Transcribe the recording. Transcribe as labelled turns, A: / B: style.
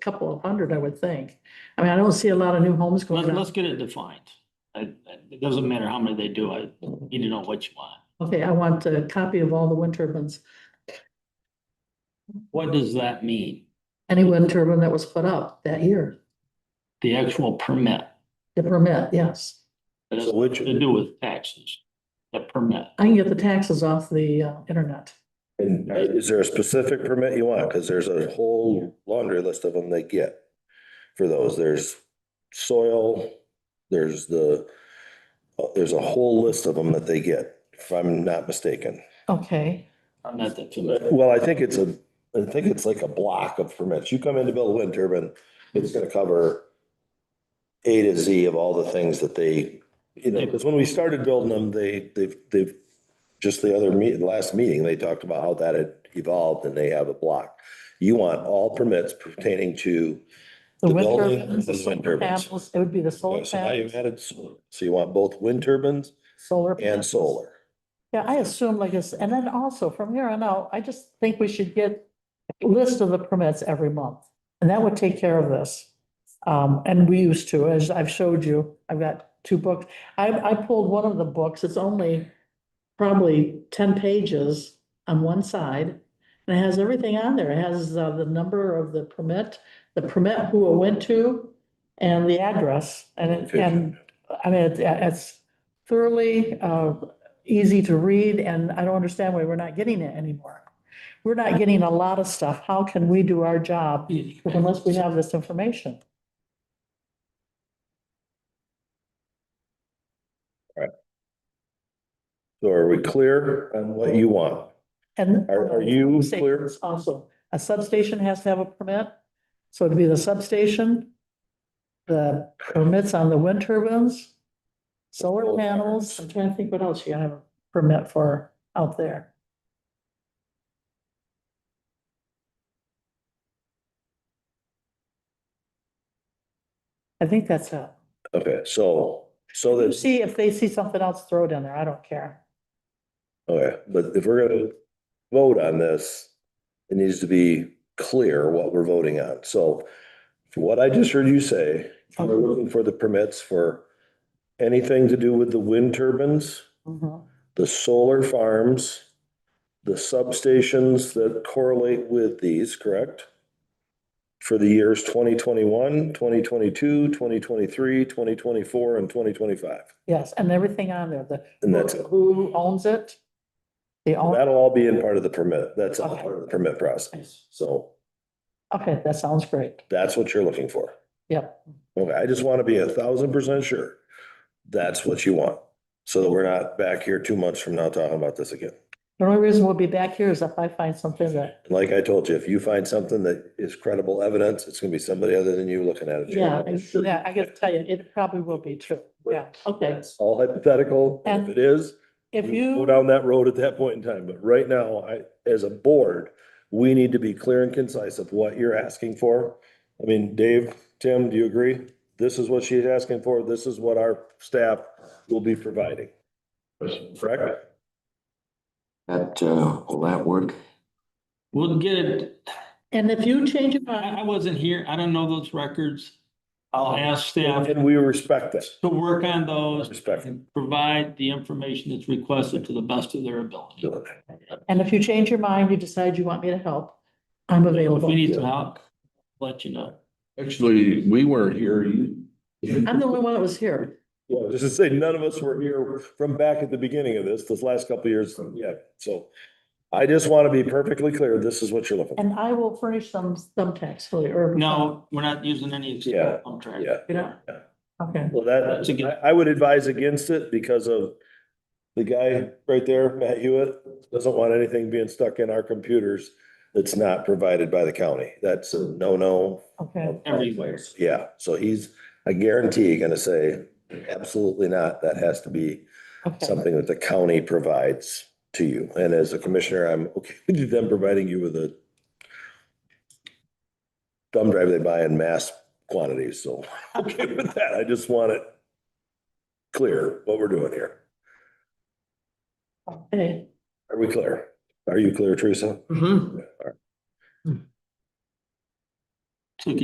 A: couple of hundred, I would think. I mean, I don't see a lot of new homes
B: Let's,
A: going up.
B: let's get it defined. I- I- It doesn't matter how many they do, I need to know what you want.
A: Okay, I want a copy of all the wind turbines,
B: What does that mean?
A: any wind turbine that was put up that year,
B: The actual permit,
A: the permit, yes.
B: that has
C: So which,
B: to do with taxes, the permit.
A: I can get the taxes off the uh, internet.
C: and uh, is there a specific permit you want? Cause there's a whole laundry list of them they get. For those, there's soil, there's the, uh, there's a whole list of them that they get, if I'm not mistaken.
A: Okay,
B: I'm not that familiar.
C: Well, I think it's a, I think it's like a block of permits. You come in to build a wind turbine, it's gonna cover A to Z of all the things that they, you know, because when we started building them, they, they've, they've, just the other meet, last meeting, they talked about how that had evolved and they have a block. You want all permits pertaining to,
A: the
C: The
A: wind
C: building
A: turbines, the
C: is wind
A: solar
C: turbines.
A: panels, it would be the solar
C: so now you've
A: panels,
C: added solar. So you want both wind turbines
A: solar.
C: and
A: panels.
C: solar.
A: Yeah, I assume like this, and then also from here on out, I just think we should get a list of the permits every month. And that would take care of this. Um, and we used to, as I've showed you, I've got two books. I, I pulled one of the books. It's only probably ten pages on one side. And it has everything on there. It has uh, the number of the permit, the permit who it went to and the address. And, it- and, I mean, it- it's thoroughly, uh, easy to read, and I don't understand why we're not getting it anymore. We're not getting a lot of stuff. How can we do our job unless we have this information?
C: So are we clear on what you want?
A: And.
C: Are, are you clear?
A: Substations Also, a substation has to have a permit, so it'd be the substation, the permits on the wind turbines, solar panels, I'm trying to think what else you have a permit for out there. I think that's it.
C: Okay, so, so
A: You
C: that.
A: see, if they see something else, throw it in there, I don't care.
C: Okay, but if we're gonna vote on this, it needs to be clear what we're voting on. So from what I just heard you say, we're looking for the permits for anything to do with the wind turbines,
A: Mhm.
C: the solar farms, the substations that correlate with these, correct? For the years 2021, 2022, 2023, 2024, and 2025.
A: Yes, and everything on there, the.
C: And that's it.
A: Who owns it? The owner.
C: That'll all be in part of the permit. That's all
A: Okay.
C: part of the permit process. So
A: Okay, that sounds great.
C: That's what you're looking for.
A: Yep.
C: Okay, I just want to be a thousand percent sure that's what you want. So that we're not back here two months from now talking about this again.
A: The only reason we'll be back here is if I find something that,
C: And Like I told you, if you find something that is credible evidence, it's gonna be somebody other than you looking at it.
A: yeah, it's- yeah, I gotta tell you, it probably will be true. Yeah, okay.
C: It's All hypothetical. and If it is,
A: If
C: we Go
A: you,
C: down that road at that point in time. But right now, I, as a board, we need to be clear and concise of what you're asking for. I mean, Dave, Tim, do you agree? This is what she's asking for. This is what our staff will be providing. Correct?
D: That, uh, will that work?
B: We'll get it.
A: and if you change your
B: I, I
A: mind,
B: wasn't here. I don't know those records. I'll ask staff
C: And we respect that.
B: to work on those
C: Respect.
B: and provide the information that's requested to the best of their ability.
A: and if you change your mind, you decide you want me to help, I'm
B: If
A: available.
B: we need some help, let you know.
D: Actually, we weren't here.
A: I'm the only one that was here.
C: Yeah, just to say, none of us were here from back at the beginning of this, this last couple of years. Yeah, so I just want to be perfectly clear. This is what you're looking for.
A: And I will furnish some thumbtacks for you, or.
B: No, we're not using any.
C: Yeah,
B: contract.
C: yeah.
A: You know?
C: Yeah.
A: Okay,
C: Well,
B: That's a good-
C: that, I, I would advise against it because of the guy right there, Matt Hewitt, doesn't want anything being stuck in our computers that's not provided by the county. That's a no-no.
A: okay,
B: Everywhere.
C: Yeah, so he's, I guarantee, gonna say, absolutely not. That has to be
A: okay.
C: something that the county provides to you. And as a commissioner, I'm okay with them providing you with a thumb drive they buy in mass quantities, so okay with that. I just want it clear what we're doing here.
A: Okay.
C: Are we clear?
B: Mm-hmm.
C: Are you clear, Teresa?
B: So can